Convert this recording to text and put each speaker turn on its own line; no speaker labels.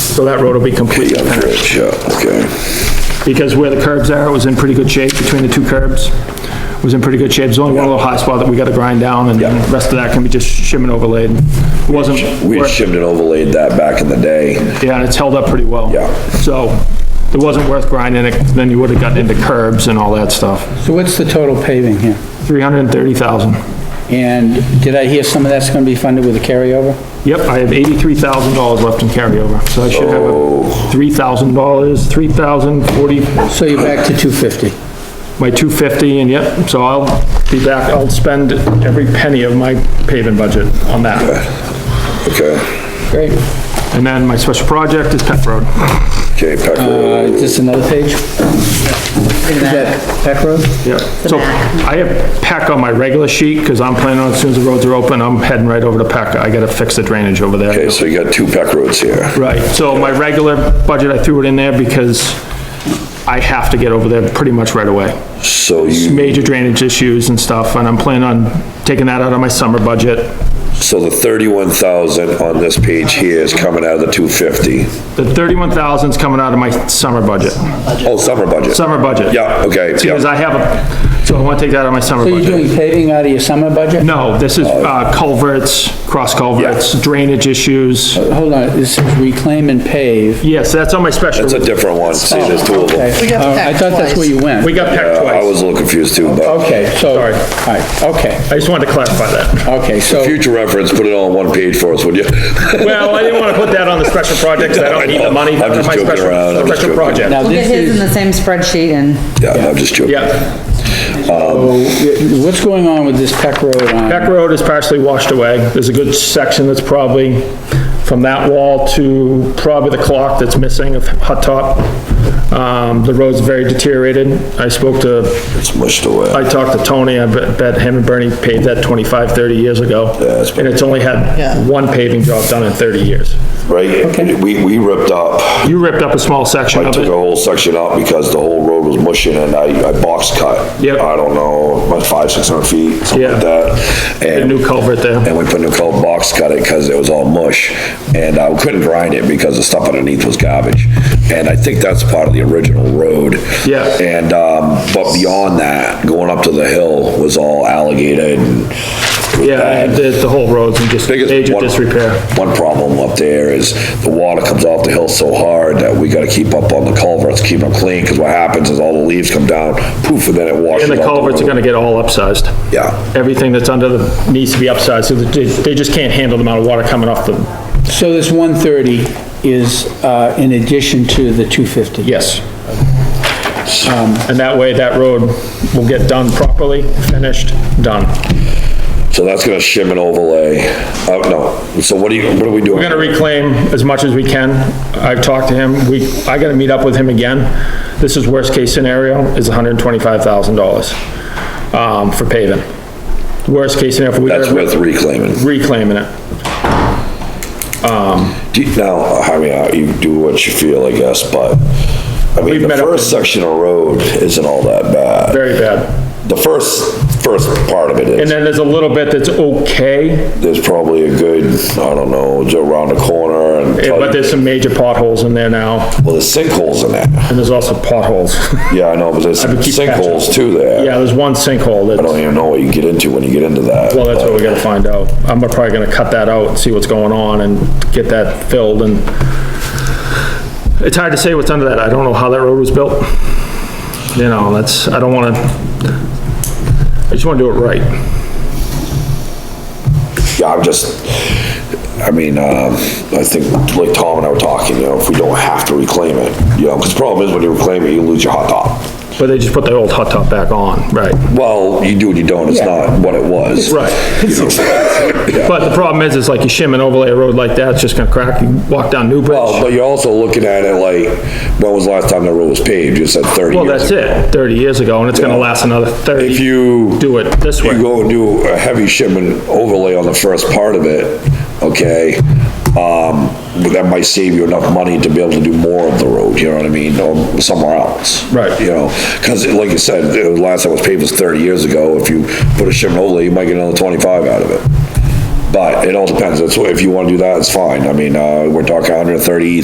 So that road will be complete,
Bridge, yeah, okay.
because where the curbs are, it was in pretty good shape, between the two curbs, It was in pretty good shape, there's only one little hot spot that we gotta grind down, and then the rest of that can be just shim and overlaid. It Wasn't,
We had
worth-
shimmed and overlaid that back in the day.
yeah, and it's held up pretty well.
Yeah.
So, it wasn't worth grinding it, then you would've gotten into curbs and all that stuff.
So what's the total paving here?
330,000.
And did I hear some of that's gonna be funded with a carryover?
Yep, I have $83,000 left in carryover, so I should have a $3,000, 3,040,
So you're back to 250.
my 250, and yep, so I'll be back, I'll spend every penny of my paving budget on that.
Okay,
Great.
And then my special project is Pet Road.
okay, Peck
Uh,
Road.
is this another page? Is that Peck Road?
Yep. So I have Peck on my regular sheet, because I'm planning on, as soon as the roads are open, I'm heading right over to Peck. I gotta fix the drainage over there.
Okay, so you got two Peck Roads here.
Right, so my regular budget, I threw it in there because I have to get over there pretty much right away.
So you,
major drainage issues and stuff, and I'm planning on taking that out of my summer budget.
so the thirty-one thousand on this page here is coming out of the two fifty.
The thirty-one thousand's coming out of my summer budget,
Oh, summer budget.
summer budget.
Yeah, okay,
Because
yeah,
I have a, so I want to take that out of my summer
So you're
budget.
doing paving out of your summer budget?
No, this is uh, culverts, cross culverts, drainage issues.
Hold on, this is reclaim and pave.
Yes, that's on my special.
it's a different one, see, there's two of them.
Okay.
got
Oh, I
Peck
thought that's where you went.
We got pecked
Uh, I
twice.
was a little confused too, but
Okay, so, all
Sorry.
right, okay,
I just wanted to clarify that.
okay, so,
future reference, put it all on one page for us, would you?
Well, I didn't want to put that on the special project, 'cause I don't need the money.
I'm just
My
joking
special-
around, I'm just
Special
joking.
project,
now
We'll get
this
his in
is,
the same spreadsheet and
Yeah, I'm just joking.
yeah.
so, what's going on with this Peck Road
Peck
on?
Road is partially washed away. There's a good section that's probably from that wall to probably the clock that's missing of Hut Top. Um, the road's very deteriorated. I spoke to,
It's mushed away.
I talked to Tony, I bet bet him and Bernie paved that 25, 30 years ago.
it's been-
And it's only had one paving job done in 30 years.
Right, we, we ripped up,
You ripped up a small section
I
of
took a
it.
whole section out because the whole road was mushing and I, I box cut.
Yep.
I don't know, about five, six hundred feet, something
Yeah.
like that.
A
And,
new culvert there.
and we put new coat box cut it because it was all mush. And I couldn't grind it because the stuff underneath was garbage. And I think that's part of the original road.
Yeah.
And, um, but beyond that, going up to the hill was all alligator and
Yeah, the, the whole road's in just
biggest
major
one-
disrepair.
One problem up there is the water comes off the hill so hard that we gotta keep up on the culverts, keep them clean, because what happens is all the leaves come down, poof, and then it washes
And
out.
the culverts are gonna get all upsized.
Yeah,
everything that's under the, needs to be upsized, so that they, they just can't handle the amount of water coming off the,
So this 130 is, uh, in addition to the 250?
yes. Um, And that way, that road will get done properly, finished, done.
so that's gonna shim and overlay. Oh, no, so what do you, what are we doing?
We're gonna reclaim as much as we can. I've talked to him, we, I gotta meet up with him again. This is worst-case scenario, is $125,000, um, for paving. Worst-case scenario, if we
That's
gotta
with reclaiming.
reclaiming it.
Do you- Now, I mean, uh, you do what you feel, I guess, but, I
We've
mean, the
met up
first
with-
section of road isn't all that bad.
Very bad.
The first, first part of it
And
is,
then there's a little bit that's okay,
there's probably a good, I don't know, just around the corner and.
Yeah, But there's some major potholes in there now,
Well, there's sinkholes in that.
and there's also potholes.
Yeah, I know, but there's
would keep
sinkholes too there.
Yeah, there's one sinkhole
I don't
that,
even know what you get into when you get into that.
well, that's what we gotta find out. I'm probably gonna cut that out, and see what's going on, and get that filled, and it's hard to say what's under that. I don't know how that road was built. You know, that's, I don't wanna, I just wanna do it right.
Yeah, I'm just, I mean, um, I think, like Tom and I were talking, you know, if we don't have to reclaim it, you know, because the problem is when you reclaim it, you lose your hot top.
But they just put the old hot top back on, right?
Well, you do and you don't, it's not what it was.
Right. But the problem is, is like you shim and overlay a road like that, it's just gonna crack. You walk down New Bridge.
Well, Oh, but you're also looking at it like, when was the last time the road was paved? You said thirty
Well,
years
that's
ago.
it, 30 years ago, and it's gonna
Yeah.
last another 30.
If you-
Do it this
You
way.
go and do a heavy shipment overlay on the first part of it, okay? Um, but that might save you enough money to be able to do more of the road, you know what I mean, or somewhere else.
Right.
You know, cause like you said, the last time it was paved was thirty years ago, if you put a shipment overlay, you might get another twenty-five out of it. But it all depends, that's what, if you wanna do that, it's fine, I mean, uh, we're talking 130,